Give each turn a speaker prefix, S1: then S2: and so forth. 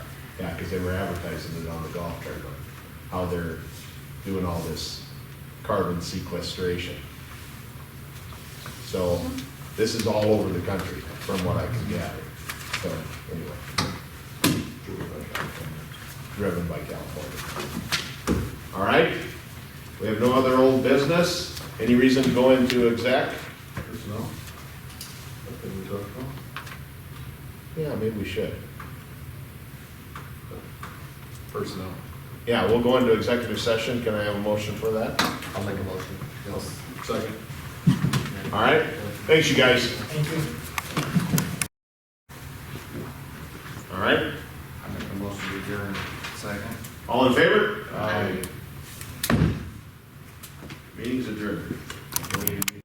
S1: Yeah, because they were advertising it on the golf tournament, how they're doing all this carbon sequestration. So this is all over the country, from what I can gather. So anyway. Driven by California. All right, we have no other old business. Any reason to go into exec?
S2: Personnel? Nothing we talked about?
S1: Yeah, maybe we should.
S2: Personnel.
S1: Yeah, we'll go into executive session. Can I have a motion for that?
S2: I'll make a motion. Yes. Second.
S1: All right, thanks you guys. Thank you. All right,
S2: I make a motion to adjourn. Second.
S1: all in favor? Meeting's adjourned.